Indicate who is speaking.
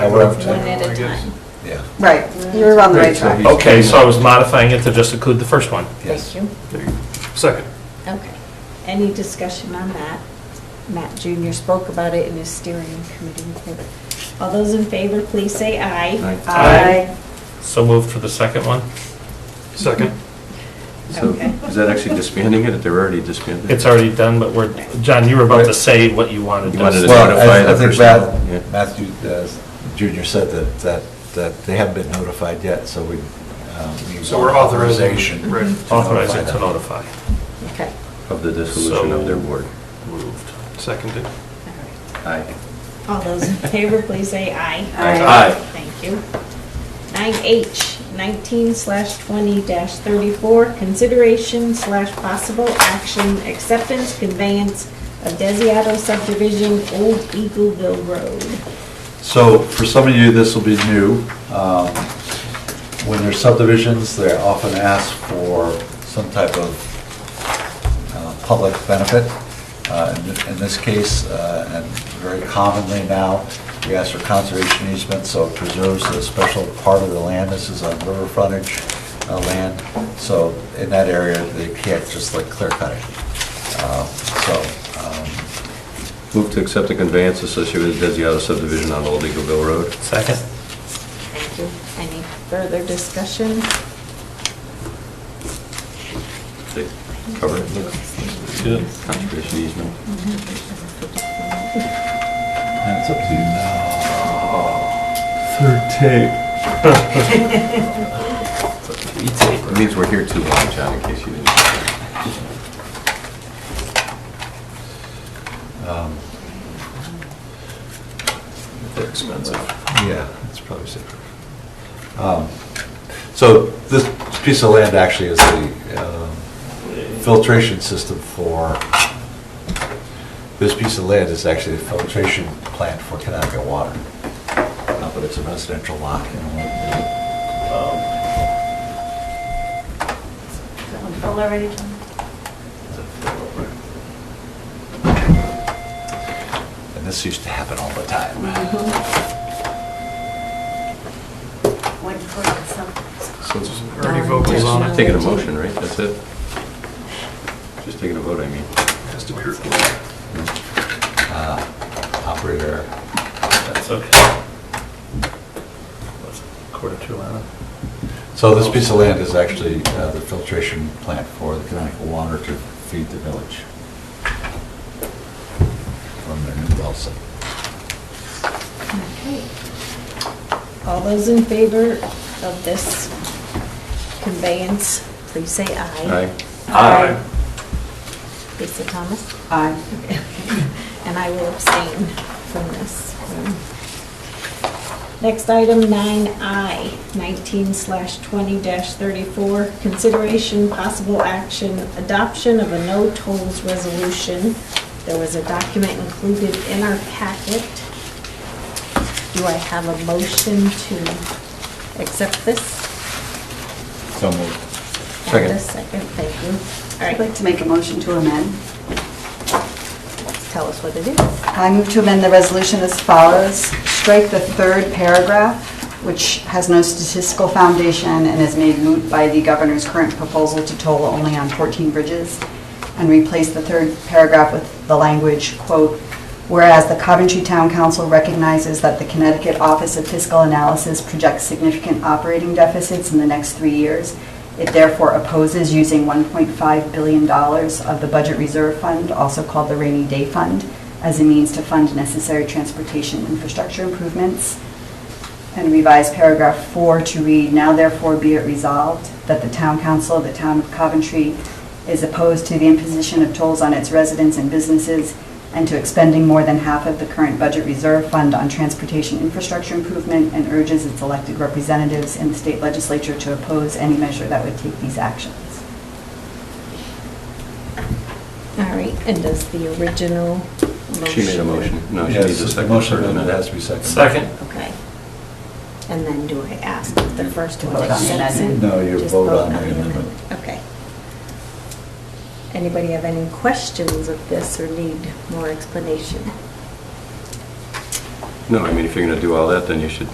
Speaker 1: I left.
Speaker 2: One at a time.
Speaker 3: Yeah,
Speaker 4: Right, you were on the right track.
Speaker 5: Okay, so I was modifying it to just include the first one.
Speaker 3: yes.
Speaker 2: Thank you.
Speaker 5: Second.
Speaker 2: Okay. Any discussion on that? Matt Jr. spoke about it in his steering committee report. All those in favor, please say aye.
Speaker 3: Aye.
Speaker 5: Aye. So moved for the second one? Second.
Speaker 3: So
Speaker 2: Okay.
Speaker 3: is that actually disbanding it? They're already disbanded?
Speaker 5: It's already done, but we're, John, you were about to say what you wanted
Speaker 3: You
Speaker 5: to
Speaker 3: wanted to
Speaker 5: say.
Speaker 3: notify
Speaker 1: Well, I- I
Speaker 3: the
Speaker 1: think
Speaker 3: person, yeah.
Speaker 1: Matt- Matthew uh, Junior said that, that, that they haven't been notified yet, so we. um, need
Speaker 6: So we're authorizing,
Speaker 1: authorization
Speaker 6: right.
Speaker 1: to
Speaker 5: Authorizing to
Speaker 1: them.
Speaker 5: notify.
Speaker 2: Okay.
Speaker 3: Of the dissolution of their board.
Speaker 5: Moved.
Speaker 6: Seconded.
Speaker 2: All right.
Speaker 3: Aye.
Speaker 2: All those in favor, please say aye.
Speaker 4: Aye.
Speaker 3: Aye.
Speaker 2: Thank you. Nine H, nineteen slash twenty dash thirty-four, consideration slash possible action, acceptance, conveyance of Desiato subdivision, Old Eagleville Road.
Speaker 1: So for some of you, this will be new. Um, When there's subdivisions, they're often asked for some type of uh, public benefit. Uh, In th- in this case, uh, and very commonly now, we ask for conservation easement, so it preserves a special part of the land. This is on river frontage uh, land, so in that area, they can't just like clear cut it. Uh, So um,
Speaker 3: Move to accept the conveyance associated with Desiato subdivision on Old Eagleville Road.
Speaker 5: Second.
Speaker 2: Thank you. Any further discussion?
Speaker 3: They Cover it.
Speaker 5: Good.
Speaker 3: Conservation easement.
Speaker 1: and it's up to you now.
Speaker 3: It means we're here too long, John, in case you didn't.
Speaker 1: um, They're expensive. Yeah, it's probably safer. Um, So this piece of land actually is the um, filtration system for, this piece of land is actually the filtration plant for Connecticut water. Uh, But it's a residential lot. you know. And this used to happen all the time.
Speaker 3: So it's
Speaker 6: Ernie Vogel's on it.
Speaker 3: Taking a motion, right? That's it? Just taking a vote, I mean.
Speaker 6: Has to be recorded.
Speaker 1: Uh, Operator,
Speaker 5: That's okay. Quarter to eleven.
Speaker 1: So this piece of land is actually uh, the filtration plant for the Connecticut water to feed the village from their new well site.
Speaker 2: Okay. All those in favor of this conveyance, please say aye.
Speaker 3: Aye.
Speaker 4: Aye.
Speaker 2: Lisa Thomas?
Speaker 4: Aye.
Speaker 2: And I will abstain from this. Next item, 9I, 19 slash 20 dash 34, consideration, possible action, adoption of a no tolls resolution. There was a document included in our packet. Do I have a motion to accept this?
Speaker 1: So moved.
Speaker 3: Second.
Speaker 2: And a Second, thank you. All
Speaker 4: I'd
Speaker 2: right,
Speaker 4: like to make a motion to amend.
Speaker 2: tell us what it is.
Speaker 4: I move to amend the resolution as follows. Strike the third paragraph, which has no statistical foundation and is made moot by the governor's current proposal to toll only on 14 bridges, and replace the third paragraph with the language, quote, "Whereas the Coventry Town Council recognizes that the Connecticut Office of Fiscal Analysis projects significant operating deficits in the next three years, it therefore opposes using $1.5 billion of the Budget Reserve Fund, also called the Rainy Day Fund, as a means to fund necessary transportation infrastructure improvements. And revise paragraph four to read, now therefore be it resolved that the town council of the town of Coventry is opposed to the imposition of tolls on its residents and businesses and to expending more than half of the current budget reserve fund on transportation infrastructure improvement and urges its elected representatives in the state legislature to oppose any measure that would take these actions.
Speaker 2: All right, and does the original motion?
Speaker 3: She made a motion. No, she needs a
Speaker 1: Yes, the
Speaker 3: second.
Speaker 1: motion
Speaker 3: Sorry,
Speaker 1: amendment
Speaker 3: no.
Speaker 1: has to be seconded.
Speaker 5: Second.
Speaker 2: Okay. And then do I ask if the first one
Speaker 4: Vote on the
Speaker 2: accepts it?
Speaker 1: amendment. No, you
Speaker 2: Just
Speaker 1: vote on the
Speaker 2: amendment.
Speaker 1: amendment.
Speaker 2: Okay. Anybody have any questions of this or need more explanation?
Speaker 3: No, I mean, if you're gonna do all that, then you should